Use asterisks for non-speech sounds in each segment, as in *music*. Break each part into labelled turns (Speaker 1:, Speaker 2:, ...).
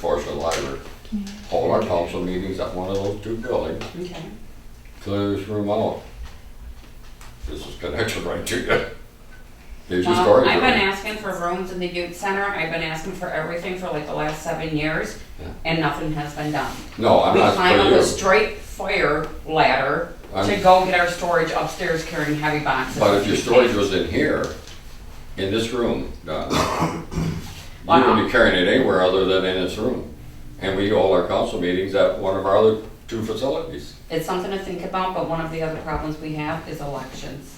Speaker 1: course, the library. All our council meetings at one of those two buildings,
Speaker 2: Okay,
Speaker 1: clear this room out. This is connected right to you. Here's your storage
Speaker 2: I've been
Speaker 1: room.
Speaker 2: asking for rooms in the youth center, I've been asking for everything for like the last seven years,
Speaker 1: Yeah.
Speaker 2: and nothing has been done.
Speaker 1: No, I'm
Speaker 2: We
Speaker 1: not
Speaker 2: climb up
Speaker 1: for
Speaker 2: a
Speaker 1: you.
Speaker 2: straight fire ladder to
Speaker 1: I'm-
Speaker 2: go get our storage upstairs carrying heavy boxes.
Speaker 1: But if your storage was in here, in this room, Don, you wouldn't be carrying it anywhere other than in this room. And we hold our council meetings at one of our other two facilities.
Speaker 2: It's something to think about, but one of the other problems we have is elections.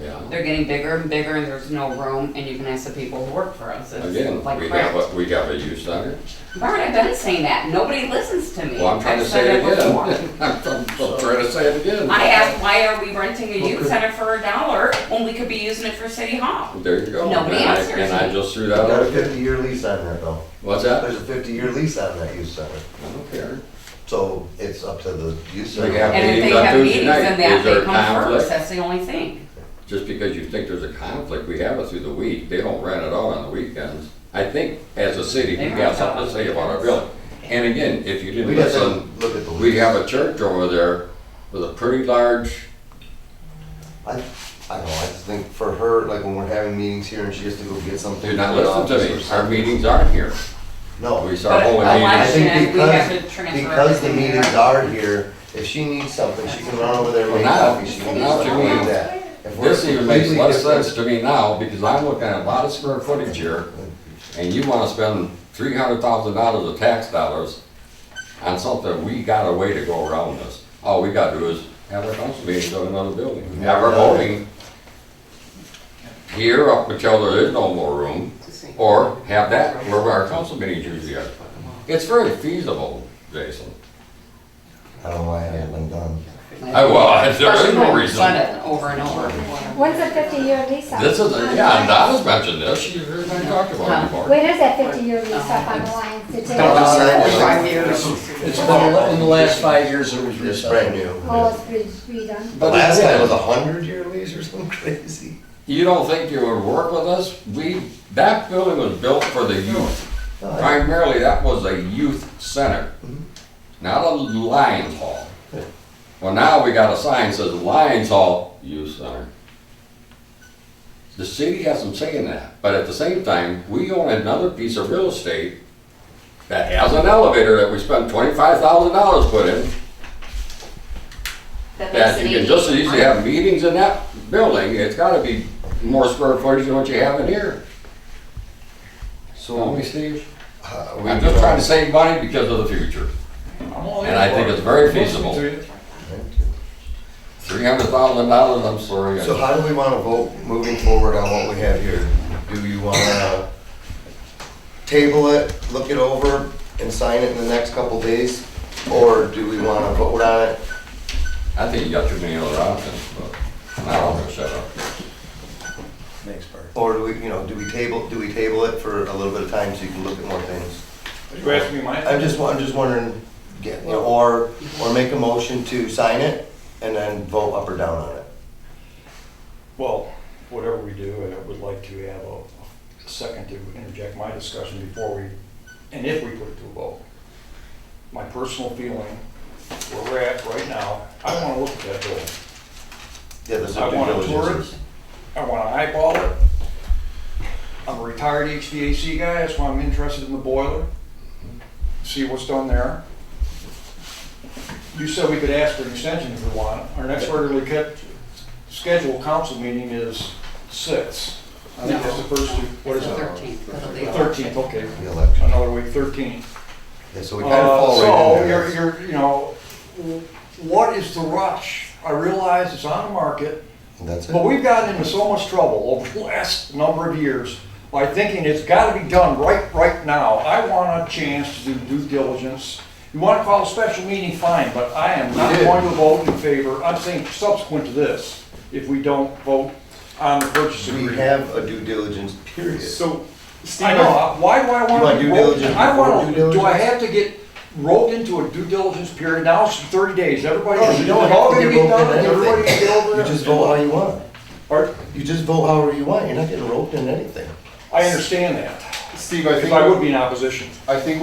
Speaker 1: Yeah.
Speaker 2: They're getting bigger and bigger, and there's no room, and you can ask the people who work for us,
Speaker 1: Again,
Speaker 2: it's like
Speaker 1: we
Speaker 2: crap.
Speaker 1: have, a we have a youth center.
Speaker 2: Bart, I've been saying that, nobody listens to me.
Speaker 1: Well, I'm trying to
Speaker 2: I've
Speaker 1: say
Speaker 2: said
Speaker 1: it again. *laughs*
Speaker 2: before.
Speaker 1: I'm trying to say it again.
Speaker 2: I asked, why are we renting a youth center for a dollar when we could be using it for city hall?
Speaker 1: There you go.
Speaker 2: Nobody
Speaker 1: And I-
Speaker 2: answers
Speaker 1: And I
Speaker 2: me.
Speaker 1: just threw that
Speaker 3: I got a
Speaker 1: out. there.
Speaker 3: fifty-year lease on that though.
Speaker 1: What's that?
Speaker 3: There's a fifty-year lease on that youth center,
Speaker 1: I don't care.
Speaker 3: so it's up to the youth
Speaker 1: We have
Speaker 2: And if
Speaker 3: center.
Speaker 2: they
Speaker 1: meetings on
Speaker 2: have
Speaker 1: Tuesday
Speaker 2: meetings
Speaker 1: night,
Speaker 2: and
Speaker 1: is
Speaker 2: that,
Speaker 1: there
Speaker 2: they
Speaker 1: a
Speaker 2: come
Speaker 1: conflict?
Speaker 2: first, that's the only thing.
Speaker 1: Just because you think there's a conflict, we have it through the week. They don't rent it out on the weekends. I think as a city, we
Speaker 2: They
Speaker 1: got
Speaker 2: rent
Speaker 1: something to
Speaker 2: out.
Speaker 1: say about our building. And again, if you didn't
Speaker 3: We have to
Speaker 1: listen,
Speaker 3: look at the lease.
Speaker 1: we have a church over there with a pretty large,
Speaker 3: I, I don't know, I just think for her, like when we're having meetings here and she has to go get something.
Speaker 1: do not
Speaker 3: from the
Speaker 1: listen to
Speaker 3: office or
Speaker 1: me. Our
Speaker 3: something.
Speaker 1: meetings aren't here.
Speaker 3: No.
Speaker 1: We start
Speaker 2: But
Speaker 1: holding
Speaker 3: I
Speaker 1: meetings.
Speaker 2: election,
Speaker 3: think
Speaker 2: we have to
Speaker 3: because,
Speaker 2: transfer
Speaker 3: because the
Speaker 2: everything
Speaker 3: meetings
Speaker 2: there.
Speaker 3: are here, if she needs something, she can run over there and
Speaker 1: Well,
Speaker 3: make
Speaker 1: now-
Speaker 3: coffee, she can do
Speaker 1: now to
Speaker 3: something
Speaker 1: me,
Speaker 3: like that. If we're
Speaker 1: This even makes
Speaker 3: completely
Speaker 1: less
Speaker 3: different-
Speaker 1: sense to me now because I'm looking at a lot of square footage here and you wanna spend three hundred thousand dollars of tax dollars on something, we got a way to go around this. All we gotta do is have our council meetings in another building, have our voting here up until there is no more room, or have that where our council meetings usually are. It's very feasible, Jason.
Speaker 3: I don't know why I haven't done.
Speaker 1: I, well, *laughs* there is
Speaker 2: Especially
Speaker 1: no
Speaker 2: when we've
Speaker 1: reason.
Speaker 2: done it Over and over.
Speaker 4: When's the fifty-year lease up?
Speaker 1: This is, yeah, and Donna's mentioned this, she's heard me talk about it before.
Speaker 4: When is that fifty-year lease up on the Lions? Did you-
Speaker 3: Uh,
Speaker 5: It's been, in the last five years, it was
Speaker 3: It's
Speaker 5: reset.
Speaker 3: brand new.
Speaker 4: Oh, it's re- redone.
Speaker 3: The last time was a hundred year lease or something *laughs* crazy.
Speaker 1: You don't think you would work with us? We, that building was built for the youth.
Speaker 3: No, I-
Speaker 1: Primarily, that was a youth center, not a Lions Hall.
Speaker 3: Yeah.
Speaker 1: Well, now we got a sign that says Lions Hall Youth Center. The city has some say in that, but at the same time, we own another piece of real estate that has an elevator that we spent twenty-five thousand dollars put in, that you can just as easily have meetings in that building. It's gotta be more square footage than what you have in here. Tell
Speaker 3: So,
Speaker 1: me, Steve.
Speaker 3: uh, we.
Speaker 1: I'm just trying to save money because of the future. And I think it's very feasible. Three hundred thousand dollars, I'm sorry.
Speaker 3: So how do we wanna vote moving forward on what we have here? Do you wanna table it, look it over, and sign it in the next couple days? Or do we wanna vote on it?
Speaker 1: I think you got too many other options, but now I'm gonna shut up.
Speaker 5: Thanks, Bart.
Speaker 3: Or do we, you know, do we table, do we table it for a little bit of time so you can look at more things?
Speaker 6: You asking me my?
Speaker 3: I'm just, wa- I'm just wondering, get- you know, or, or make a motion to sign it and then vote up or down on it.
Speaker 6: Well, whatever we do, I would like to have a a second to interject my discussion before we, and if we put it to a vote. My personal feeling, where we're at right now, I want to look at that building.
Speaker 3: Yeah, there's
Speaker 6: I
Speaker 3: a due
Speaker 6: want to
Speaker 3: diligence.
Speaker 6: tour it. I want to eyeball it. I'm a retired HVAC guy, that's why I'm interested in the boiler. See what's done there. You said we could ask for an extension if we want. Our next regularly kept scheduled council meeting is six. I think that's the first, two- what is
Speaker 2: It's the
Speaker 6: it?
Speaker 2: 13th, because of
Speaker 6: The
Speaker 2: the
Speaker 6: thirteenth, okay.
Speaker 3: The election.
Speaker 6: Another week, thirteenth.
Speaker 3: Yeah, so we kind of
Speaker 6: Uh,
Speaker 3: fall right
Speaker 6: So,
Speaker 3: in there.
Speaker 6: you're, you're, you know, w- what is the rush? I realize it's on the market.
Speaker 3: And That's it.
Speaker 6: But we've gotten into so much trouble over the *laughs* last number of years by thinking it's gotta be done right, right now. I want a chance to do due diligence. You wanna call a special meeting, fine, but I am not
Speaker 3: We did.
Speaker 6: going to vote in favor, I'm saying subsequent to this, if we don't vote on the purchase
Speaker 3: We
Speaker 6: agreement.
Speaker 3: have a due diligence period.
Speaker 7: So, Steve,
Speaker 6: I know, I- why do I
Speaker 3: You want
Speaker 6: wanna be
Speaker 3: due
Speaker 6: roped?
Speaker 3: diligence
Speaker 6: I wanna,
Speaker 3: before due
Speaker 6: do I
Speaker 3: diligence?
Speaker 6: have to get roped into a due diligence period? Now it's thirty days, everybody,
Speaker 3: No, you
Speaker 6: is it
Speaker 3: don't
Speaker 6: all
Speaker 3: have to get
Speaker 6: gonna
Speaker 3: roped
Speaker 6: get done,
Speaker 3: in
Speaker 6: and everybody
Speaker 3: everything.
Speaker 6: can get over
Speaker 3: You
Speaker 6: it?
Speaker 3: just vote how you want.
Speaker 6: Or-
Speaker 3: You just vote however you want. You're not getting roped in anything.
Speaker 6: I understand that,
Speaker 7: Steve, I
Speaker 6: because
Speaker 7: think,
Speaker 6: I would be in opposition.
Speaker 7: I think